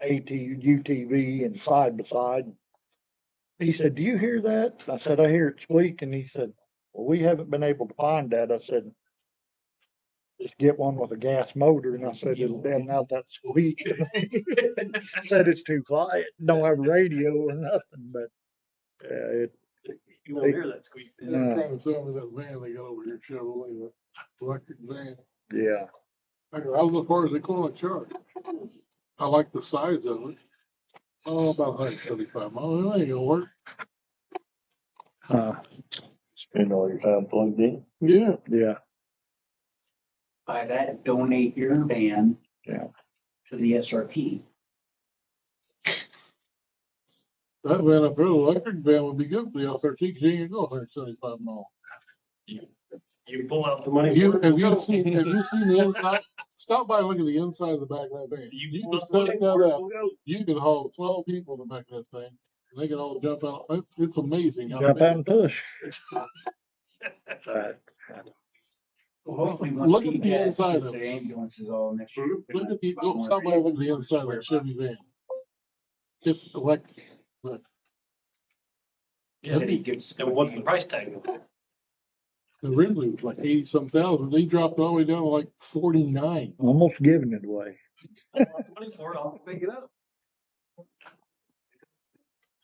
AT, UTV and side by side. He said, do you hear that? I said, I hear it squeak. And he said, well, we haven't been able to find that. I said, just get one with a gas motor. And I said, it'll damn out that squeak. I said, it's too quiet. Don't have a radio or nothing, but yeah, it, You won't hear that squeak. And they're trying to sell me that van they got over here, Chevrolet, the electric van. yeah. I go, How far is it going to charge? I like the size of it. Oh, about hundred and seventy-five miles, that ain't gonna work. Uh, Spend all your time plugged in. Yeah, yeah. Buy that, and donate your van. Yeah. To the SRP. that van up there, the electric van would be good for the L thirteen, cause you ain't gonna go hundred and seventy-five miles. You pull out the money. You, have you seen, have you seen the inside? Stop by and look at the inside of the back of that van. You can set that uh, up. You could haul twelve people in the back of that thing. and They could all jump out. It's, it's amazing. how Jump big- out and push. Uh, Well, Hopefully, once Look at Pete the has inside of his it. ambulances all next year. they're Look gonna at the, have a lot go, more stop by vans. and look at the inside of that Chevy van. It's electric. Look, City gives. And what's the price tag? of it? the originally was like eighty some thousand. They dropped it all the way down to like forty-nine. Almost giving it away. I want the Money for it, I'll pick it up.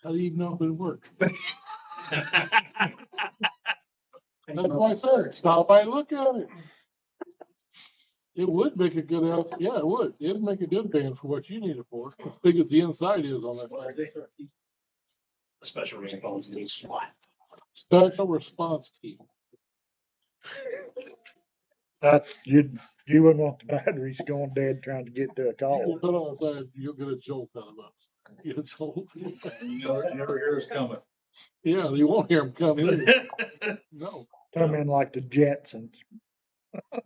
How do you even know if it worked? And That's why I said, stop by and look at it. It would make a good house. Yeah, it would. It'd make a good van for what you need it for, as big as the inside is on that thing. A Special response needs SWAT. Special response team. That's, you, you wouldn't want the batteries going dead trying to get to a call. We'll put on a side, you'll get a jolt out of us. Get a jolt. You never, you never hear us coming. Yeah, you won't hear them coming. That No. Come in like the Jetsons. one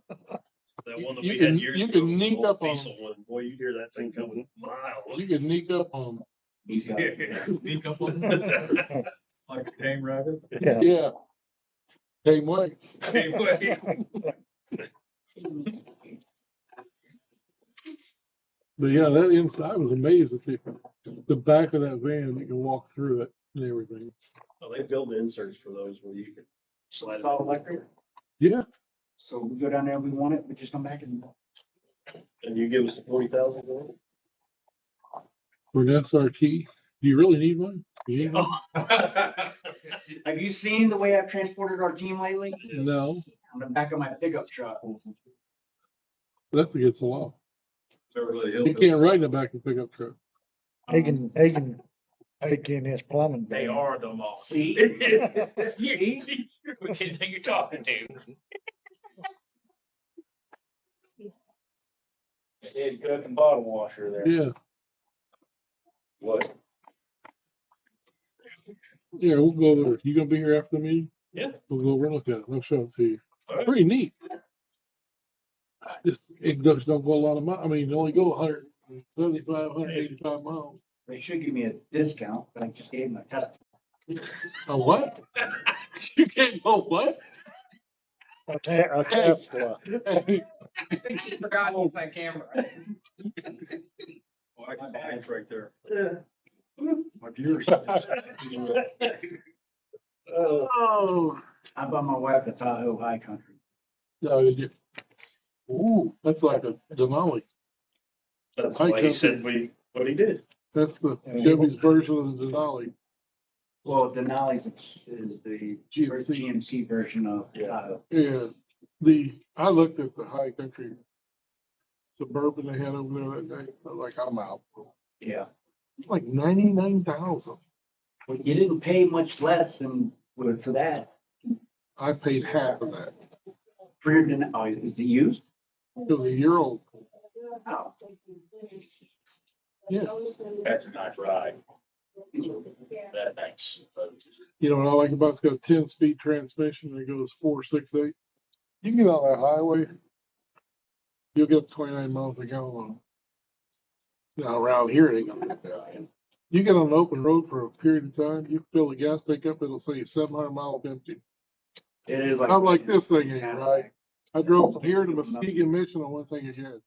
that You we can- had years you ago. can was an sneak old up on Mm-hmm. diesel one. Boy, you hear that thing coming miles. You can sneak up on them. he's got it. He comes up Like a tame rabbit. Yeah. Yeah. Same way. Anyway, But yeah, that inside I was amazed at the, the back of that van, you can walk through it and everything. Well, They build inserts for those where you can So slide. it's all electric. Yeah, So we go down there, we want it, we just come back and. And you give us the forty thousand dollars? for an SRT. Do you really need one? You need one? Have you seen the way I've transported our team lately? No, On the back of my pickup truck. that's against the law. they're really You hillbilly. can't ride in the back of a pickup truck. He can, he can take in his plumbing. They bill. are the most. See? You- you- We can't think you're talking to. Head cook and bottom washer there. Yeah, What? yeah, we'll go over. You gonna be here after the meeting? Yeah. We'll go over and look at it. I'll show it to you. All right. Pretty neat. I Just, it does don't go a lot of mi, I mean, it only go hundred and seventy-five, hundred and eighty-five miles. They should give me a discount, but I just gave them a test. A what? You can't go what? A ta- a Tesla. think he forgot he's on camera. Well, I can buy it right there. Uh. My viewers. Oh, Oh. I bought my wife a Tahoe High Country. No, it did. Ooh, that's like a Denali. That's why he said we, what he did. That's the Chevy's version of the Denali. Well, Denali's is- is the first GMC. GMC version of uh, Yeah. Tahoe. And the, I looked at the high country suburban they had over there that day, I was like, I'm out. Yeah. Like ninety-nine thousand. Well, you didn't pay much less than would for that. I paid half of that. For your Den, oh, is it used? It was a year old. Oh. Yeah. That's a nice ride. That nice. You know what I like about it? It's got a ten-speed transmission and it goes four, six, eight. You can get on that highway, you'll get up twenty-nine miles a gallon. on it. Now around here, it ain't gonna get that. You get on an open road for a period of time, you fill the gas tank up, it'll say seven hundred miles empty. It is like. I'm like, this thing ain't right. I drove from here to Muskegon Mission on one thing again.